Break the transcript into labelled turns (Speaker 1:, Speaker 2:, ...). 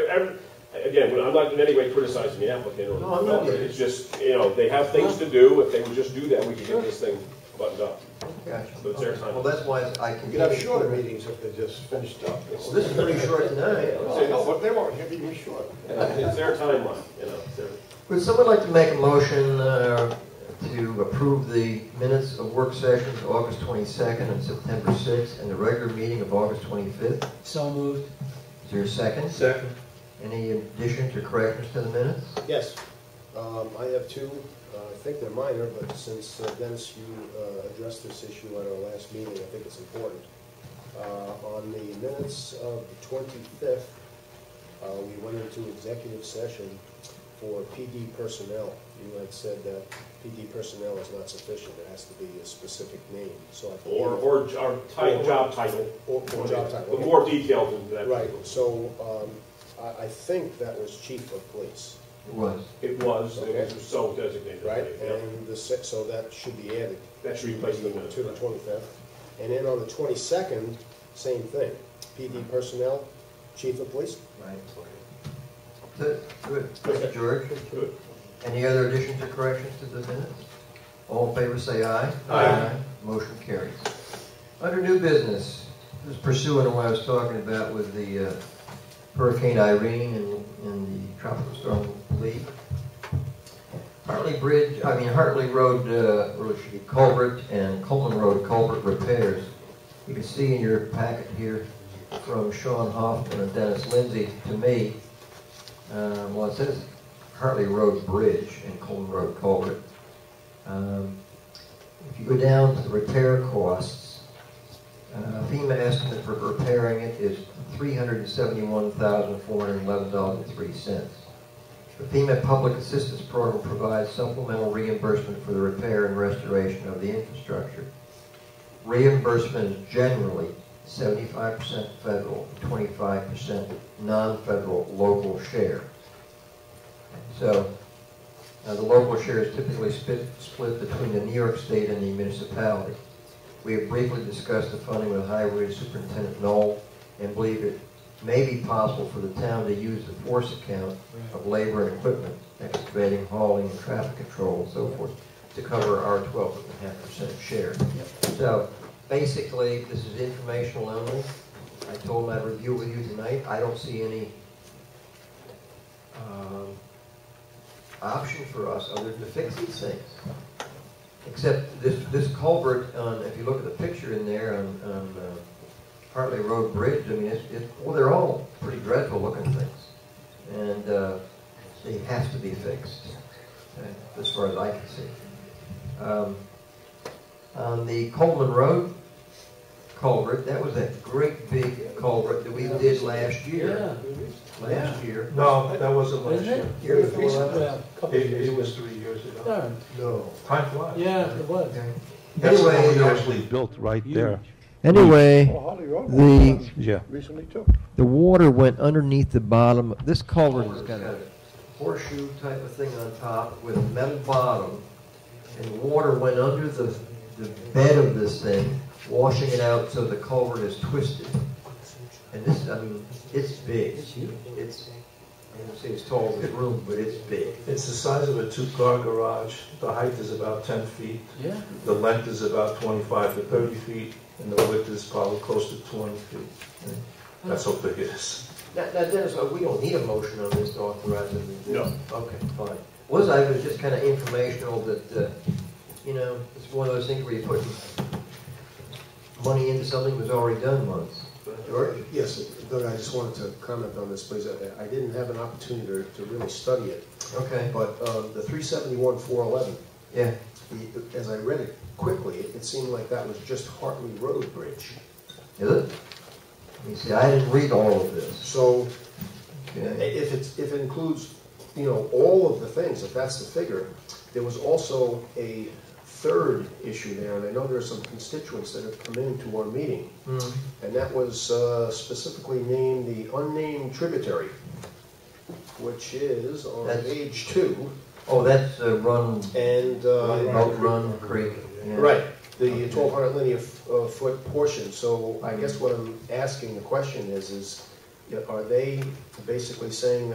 Speaker 1: every, again, I'm not in any way criticizing the applicant or the
Speaker 2: No, I'm not
Speaker 1: developer,
Speaker 2: either.
Speaker 1: it's just, you know, they have things to do, if they would just do that, we could get this thing buttoned up.
Speaker 2: Gotcha.
Speaker 1: So it's their time.
Speaker 2: Well, that's why I can get
Speaker 3: You could
Speaker 2: up
Speaker 3: have shorter
Speaker 2: short.
Speaker 3: meetings if they just finished up.
Speaker 2: Well, this is pretty short tonight.
Speaker 3: Well, no, but they won't have even short.
Speaker 1: You know, It's their timeline, you know, it's their-
Speaker 2: Would someone like to make a motion uh, to approve the minutes of work sessions, August 22nd and September 6th, and the regular meeting of August 25th?
Speaker 4: So moved.
Speaker 2: Is there a second?
Speaker 5: Second.
Speaker 2: Any additions or corrections to the minutes?
Speaker 3: Yes, um, I have two, Uh, I think they're minor, but since uh, Dennis, you uh, addressed this issue at our last meeting, I think it's important. Uh, On the minutes of the twenty-fifth, uh, we went into executive session for PD personnel. You had said that PD personnel is not sufficient, it has to be a specific name, so I. believe-
Speaker 1: or, or j- our title, job title.
Speaker 3: Or or job title.
Speaker 1: But More detailed than that.
Speaker 3: Right, so um, I I think that was chief of police.
Speaker 2: It was.
Speaker 1: It was, it was so designated.
Speaker 3: Right,
Speaker 1: yeah.
Speaker 3: and the six, so that should be added.
Speaker 1: That should replace the minutes,
Speaker 3: To the
Speaker 1: right.
Speaker 3: twenty-fifth. And then on the twenty-second, same thing, PD personnel, chief of police.
Speaker 2: Right. Good, good.
Speaker 1: Okay.
Speaker 2: George,
Speaker 1: Good.
Speaker 2: any other additions or corrections to the minutes? All in favor, say aye.
Speaker 1: Aye.
Speaker 2: Motion carries. Under new business, this is pursuing what I was talking about with the uh, Hurricane Irene and, and the Tropical Storm Lee. Hartley Bridge, I mean Hartley Road, uh, road should be culvert and Coleman Road culvert repairs. You can see in your packet here from Sean Hoffman and Dennis Lindsay to me, um, well, it says Hartley Road Bridge and Coleman Road culvert. Um, If you go down to the repair costs, uh, FEMA estimate for repairing it is three hundred and seventy-one thousand, four hundred and eleven dollars and three cents. The FEMA Public Assistance Program provides supplemental reimbursement for the repair and restoration of the infrastructure. Reimbursement is generally seventy-five percent federal, twenty-five percent non-federal local share. So, uh, the local share is typically split, split between the New York State and the municipality. We have briefly discussed the funding with Highway Superintendent Knoll and believe it may be possible for the town to use the force account of labor and equipment, excavating, hauling, and traffic control, and so forth, to cover our twelve and a half percent share. So basically, this is informational only. I told them I'd review it with you tonight. I don't see any um, option for us other than to fix these things. Except this, this culvert, on- if you look at the picture in there on, on uh, Hartley Road Bridge, I mean, it's, it's, well, they're all pretty dreadful looking things. And uh, they have to be fixed, uh, as far as I can see. Um, On the Coleman Road culvert, that was that great big culvert that we did last year. Last year.
Speaker 5: No, that wasn't last
Speaker 4: Isn't it?
Speaker 5: year.
Speaker 2: Year before last.
Speaker 4: Well, a couple
Speaker 5: It,
Speaker 4: years
Speaker 5: it
Speaker 4: ago.
Speaker 5: was three years ago.
Speaker 4: Darn.
Speaker 3: No.
Speaker 5: Time flies.
Speaker 4: Yeah, it was.
Speaker 2: Okay.
Speaker 5: That's the one
Speaker 2: Anyway,
Speaker 5: we
Speaker 2: uh,
Speaker 5: actually built right there.
Speaker 2: Anyway,
Speaker 3: Holly Road
Speaker 2: the,
Speaker 5: Yeah.
Speaker 3: recently too.
Speaker 2: the water went underneath the bottom, this culvert has got a horseshoe type of thing on top with a metal bottom, and the water went under the, the bed of this thing, washing it out so the culvert is twisted. And this, I mean, it's big. It's, I don't say it's tall as this room, but it's big.
Speaker 5: It's the size of a two-car garage. The height is about 10 feet.
Speaker 4: Yeah.
Speaker 5: The length is about 25 to 30 feet, and the width is probably close to 20 feet. That's how big it is.
Speaker 2: Now, now Dennis, uh, we don't need a motion on this to authorize it.
Speaker 1: No.
Speaker 2: Okay, fine. Was I, was just kind of informational that, uh, you know, it's one of those things where you put money into something that was already done once. George?
Speaker 3: Yes, Doug, I just wanted to comment on this, please. I- I didn't have an opportunity to to really study it,
Speaker 2: Okay,
Speaker 3: but uh, the three seventy-one, four eleven,
Speaker 2: yeah.
Speaker 3: as I read it quickly, it it seemed like that was just Hartley Road Bridge.
Speaker 2: Is it? Let me see, I didn't read all of this.
Speaker 3: So
Speaker 2: Okay.
Speaker 3: If it's, if it includes, you know, all of the things, if that's the figure, there was also a third issue there, and I know there are some constituents that have come into our meeting,
Speaker 2: Hmm.
Speaker 3: and that was uh, specifically named the unnamed tributary, which is on
Speaker 2: That's-
Speaker 3: page two,
Speaker 2: Oh, that's uh, Run,
Speaker 3: and, uh,
Speaker 2: Boat Run Creek. yeah.
Speaker 3: right, the twelve hundred linear f- uh, foot portion, so I
Speaker 2: Mhm.
Speaker 3: guess what I'm asking the question is, is
Speaker 5: Yep.
Speaker 3: Are they basically saying